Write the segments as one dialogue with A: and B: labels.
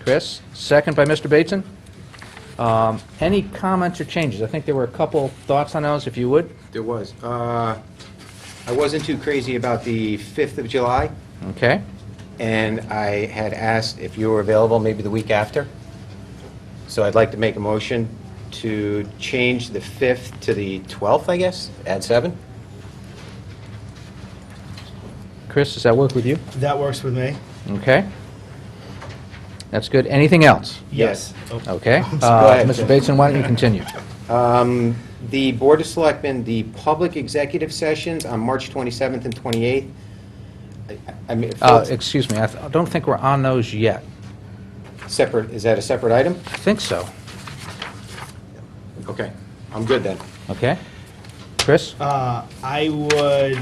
A: Chris, second by Mr. Bateson. Um, Any comments or changes? I think there were a couple thoughts on those, if you would.
B: There was. Uh, I wasn't too crazy about the 5th of July,
A: Okay,
B: and I had asked if you were available maybe the week after. So I'd like to make a motion to change the 5th to the 12th, I guess, at 7?
A: Chris, does that work with you?
C: That works with me.
A: Okay. That's good. Anything else?
B: Yes.
A: Okay.
B: Go
A: Uh,
B: ahead,
A: Mr.
B: Jim.
A: Bateson, why don't you continue?
B: Um, The Board of Selectmen, the public executive sessions on March 27th and 28th. I- I mean,
A: Uh, Excuse me, I th- I don't think we're on those yet.
B: separate, is that a separate item?
A: I think so.
B: Okay, I'm good then.
A: Okay? Chris?
C: Uh, I would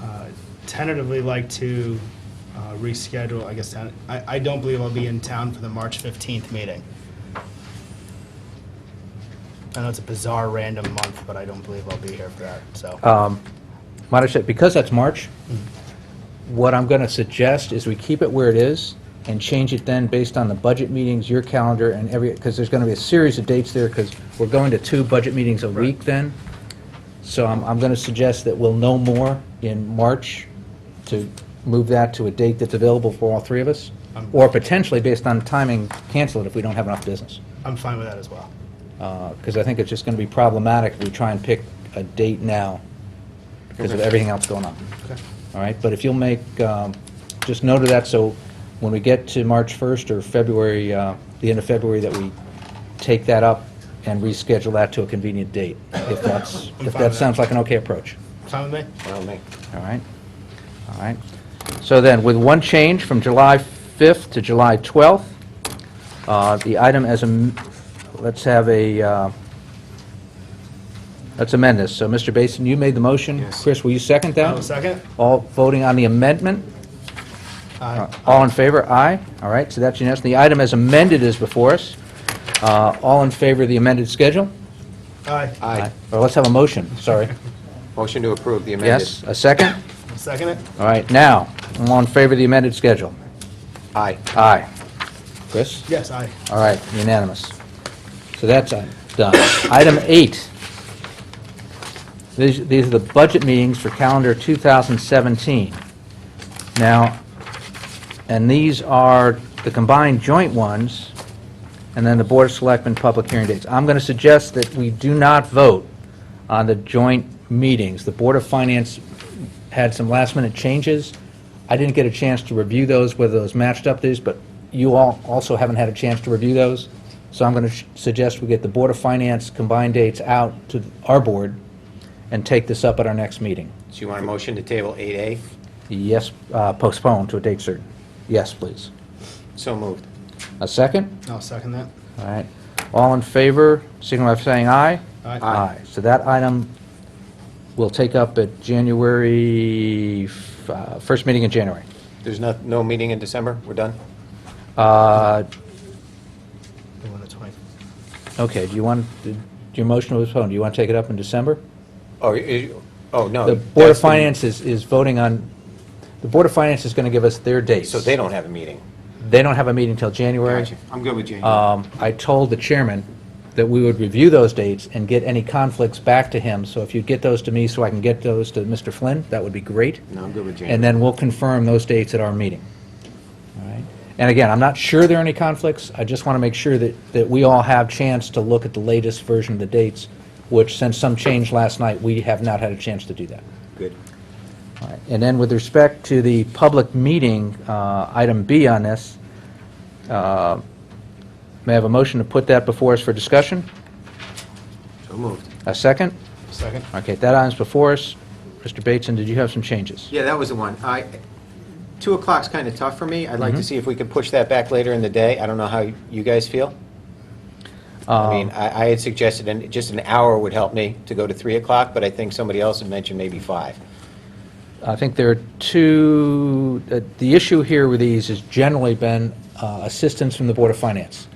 C: uh, tentatively like to uh, reschedule, I guess, ten- I, I don't believe I'll be in town for the March 15th meeting. I know it's a bizarre random month, but I don't believe I'll be here for that, so.
A: Madam Chair, because that's March, what I'm going to suggest is we keep it where it is and change it then based on the budget meetings, your calendar, and every, because there's going to be a series of dates there, because we're going to two budget meetings a week then. So I'm, I'm going to suggest that we'll know more in March to move that to a date that's available for all three of us, or potentially, based on timing, cancel it if we don't have enough business
C: I'm fine with that as well.
A: because Uh, I think it's just going to be problematic if we try and pick a date now because of everything else going on. All right, but if you'll make, um, just note of that, so when we get to March 1st or February, uh, the end of February, that we take that up and reschedule that to a convenient date, if that's,
C: I'm
A: if
C: fine with
A: that
C: that.
A: sounds like an okay approach.
C: Fine with me?
B: Well, Nick,
A: All right, all right. So then, with one change from July 5th to July 12th, uh, the item as, am- let's have a, uh, let's amend this. So, Mr. Basin, you made the motion.
B: Yes.
A: Chris, will you second that?
C: Have a second?
A: All voting on the amendment?
C: Aye.
A: All in favor? Aye. All right, so that's unanimous. The item as amended is before us. Uh, All in favor of the amended schedule?
C: Aye.
B: aye.
A: Or let's have a motion, sorry.
B: Motion to approve the amended.
A: Yes, a second?
C: Second it?
A: All right, now, all in favor of the amended schedule?
B: Aye.
A: Aye. Chris?
C: Yes, aye.
A: All right, unanimous. So that's uh, done. Item eight. These these are the budget meetings for calendar 2017. Now, and these are the combined joint ones, and then the Board of Selectmen public hearing dates. I'm going to suggest that we do not vote on the joint meetings. The Board of Finance had some last-minute changes. I didn't get a chance to review those, whether those matched up to these, but you all also haven't had a chance to review those. So I'm going to suggest we get the Board of Finance combined dates out to our board and take this up at our next meeting.
B: So you want a motion to table 8A?
A: Yes, uh, postpone to a date certain. Yes, please.
B: So moved.
A: A second?
C: I'll second that.
A: All right. All in favor, signify by saying aye.
C: Aye.
B: Aye.
A: So that item we'll take up at January, f- uh, first meeting in January.
B: There's no, no meeting in December? We're done?
A: Uh,
C: The one that's twenty-
A: Okay, do you want, do your motion was postponed, do you want to take it up in December?
B: Oh, you- oh, no.
A: The Board of
B: that's the-
A: Finance is, is voting on, the Board of Finance is going to give us their dates.
B: So they don't have a meeting?
A: They don't have a meeting till January.
B: Gotcha. I'm good with Jane.
A: Um, I told the chairman that we would review those dates and get any conflicts back to him, so if you get those to me so I can get those to Mr. Flynn, that would be great.
B: No, I'm good with January.
A: And then we'll confirm those dates at our meeting. All right? And again, I'm not sure there are any conflicts, I just want to make sure that, that we all have chance to look at the latest version of the dates, which since some changed last night, we have not had a chance to do that.
B: Good.
A: All right. And then with respect to the public meeting, uh, item B on this, uh, may I have a motion to put that before us for discussion?
B: So moved.
A: A second?
C: Second?
A: Okay, that item's before us. Mr. Bateson, did you have some changes?
B: Yeah, that was the one. I, 2 o'clock's kind of tough for me. I'd
A: Mm-hmm.
B: like to see if we could push that back later in the day. I don't know how you guys feel.
A: Um,
B: I mean, I I had suggested an- just an hour would help me to go to 3 o'clock, but I think somebody else had mentioned maybe 5.
A: I think there are two, uh, the issue here with these has generally been uh, assistance from the Board of Finance.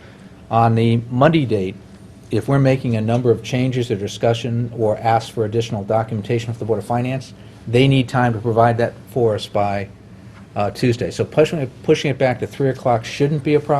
A: On the Monday date, if we're making a number of changes or discussion or ask for additional documentation from the Board of Finance, they need time to provide that for us by uh, Tuesday. So pushing it, pushing it back to 3 o'clock shouldn't be a problem.